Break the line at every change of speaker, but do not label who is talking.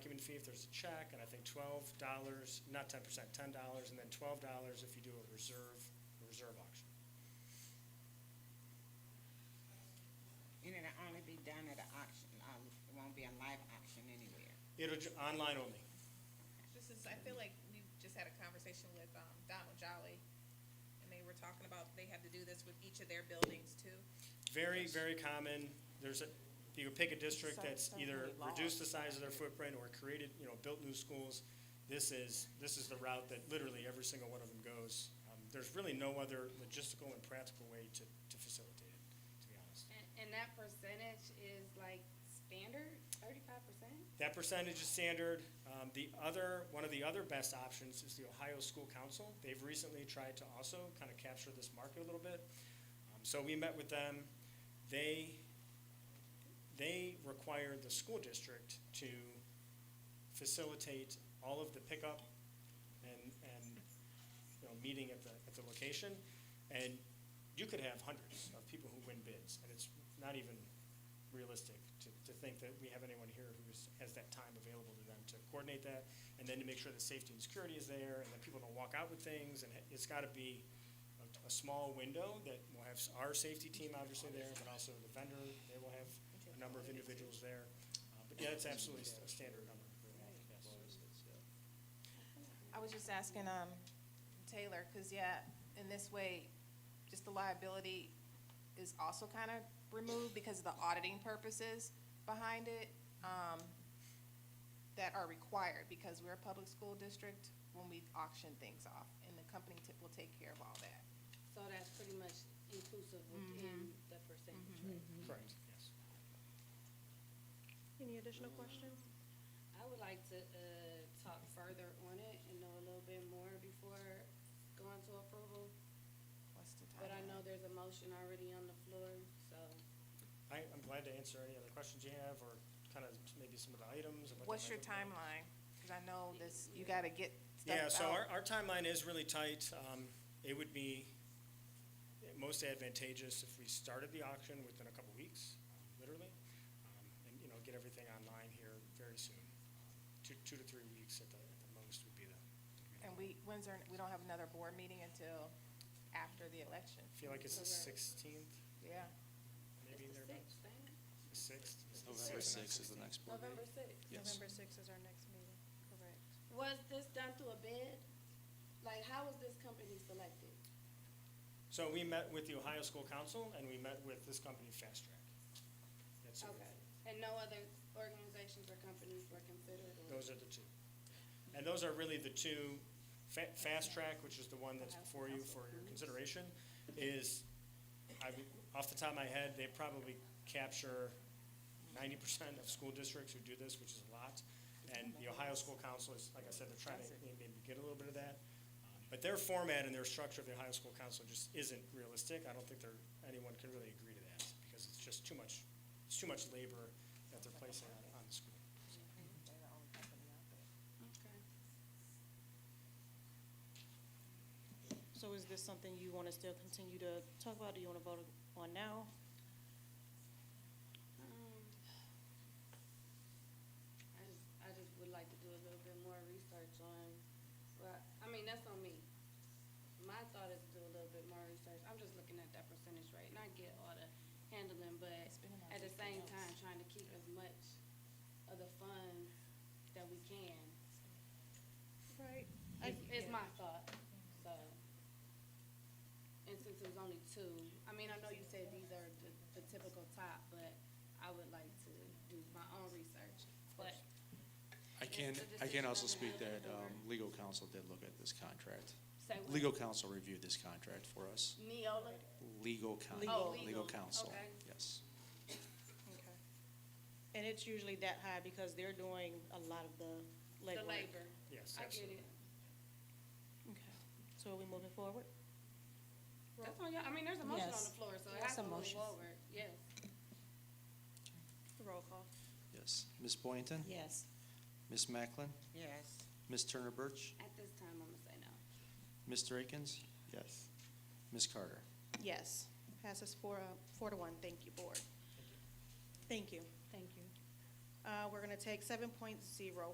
fee if there's a check, and I think twelve dollars, not ten percent, ten dollars, and then twelve dollars if you do a reserve, a reserve auction.
And it'll only be done at an auction, um, it won't be a live auction anywhere.
It'll, ju- online only.
This is, I feel like we just had a conversation with um, Donald Jolly, and they were talking about they have to do this with each of their buildings too.
Very, very common. There's a, you can pick a district
So-
that's
so
either
many laws.
reduced the size of their footprint or created, you know, built new schools. This is, this is the route that literally every single one of them goes. Um, There's really no other logistical and practical way to, to facilitate it, to be honest.
And, and that percentage is like standard, thirty-five percent?
That percentage is standard. Um, The other, one of the other best options is the Ohio School Council. They've recently tried to also kind of capture this market a little bit. Um, So we met with them. They, they require the school district to facilitate all of the pickup and, and, you know, meeting at the, at the location. And you could have hundreds of people who win bids, and it's not even realistic to, to think that we have anyone here who is- has that time available to them to coordinate that, and then to make sure that safety and security is there, and that people don't walk out with things, and it's gotta be a, a small window that will have our safety team obviously there, but also the vendor, they will have a number of individuals there. Uh, But yeah, it's absolutely a standard number. Yes.
I was just asking, um, Taylor, cause yeah, in this way, just the liability is also kind of removed because of the auditing purposes behind it, um, that are required, because we're a public school district when we auction things off, and the company ti- will take care of all that.
So that's pretty much inclusive within the percentage rate.
Correct, yes.
Any additional questions?
I would like to, uh, talk further on it and know a little bit more before going to approval.
What's the
But I
timeline?
know there's a motion already on the floor, so.
I, I'm glad to answer any other questions you have, or kind of maybe some of the items. and what they
What's
might
your
look like.
timeline? Cause I know this, you gotta get stuff
Yeah,
out.
so our, our timeline is really tight. Um, It would be most advantageous if we started the auction within a couple weeks, literally, um, and, you know, get everything online here very soon. Two, two to three weeks at the, at the most would be the.
And we, when's our, we don't have another board meeting until after the election,
I feel like it's the sixteenth,
yeah.
maybe
It's the
thereabouts,
sixth, ain't it?
the sixth.
November sixth is the next board meeting.
November sixth.
Yes.
November sixth is our next meeting, correct.
Was this done through a bid? Like, how was this company selected?
So we met with the Ohio School Council, and we met with this company, Fast Track. That's who-
Okay, and no other organizations or companies were considered? or-
Those are the two. And those are really the two, Fa- Fast Track, which is the one that's before you for your consideration, is, I, off the top of my head, they probably capture ninety percent of school districts who do this, which is a lot. And the Ohio School Council is, like I said, they're trying to maybe get a little bit of that. Um, But their format and their structure of the Ohio School Council just isn't realistic. I don't think there, anyone can really agree to that, because it's just too much, it's too much labor that they're placing on, on the school.
They're the only company out there.
Okay.
So is this something you want to still continue to talk about? Do you want to vote on now?
Um, I just, I just would like to do a little bit more research on, well, I mean, that's on me. My thought is to do a little bit more research. I'm just looking at that percentage rate, and I get all the handling, but
It's been about
at the same
50
time,
bucks.
trying to keep as much of the funds that we can,
Right.
is, is my thought, so. And since it was only two, I mean, I know you said these are the, the typical top, but I would like to do my own research, but
I can,
It's a
I can also
decision
speak
of the
that
board.
um, legal counsel did look at this contract.
Say what?
Legal counsel reviewed this contract for us.
Neola,
Legal
Legal.
counsel,
Oh,
legal.
legal counsel,
Okay.
yes.
Okay. And it's usually that high because they're doing a lot of the
the
legwork.
labor.
Yes,
I get it.
absolutely.
Okay. So are we moving forward?
That's on y'all, I mean, there's a motion on the
Yes.
floor, so it
Yes,
has to
a
move
motion.
forward, yes.
Roll call.
Yes. Ms. Boynton?
Yes.
Ms. Macklin?
Yes.
Ms. Turner Birch?
At this time, I'm gonna say no.
Mr. Akins? Yes. Ms. Carter?
Yes. Passes four, uh, four to one. Thank you, board. Thank you.
Thank you.
Uh, We're going to take seven point zero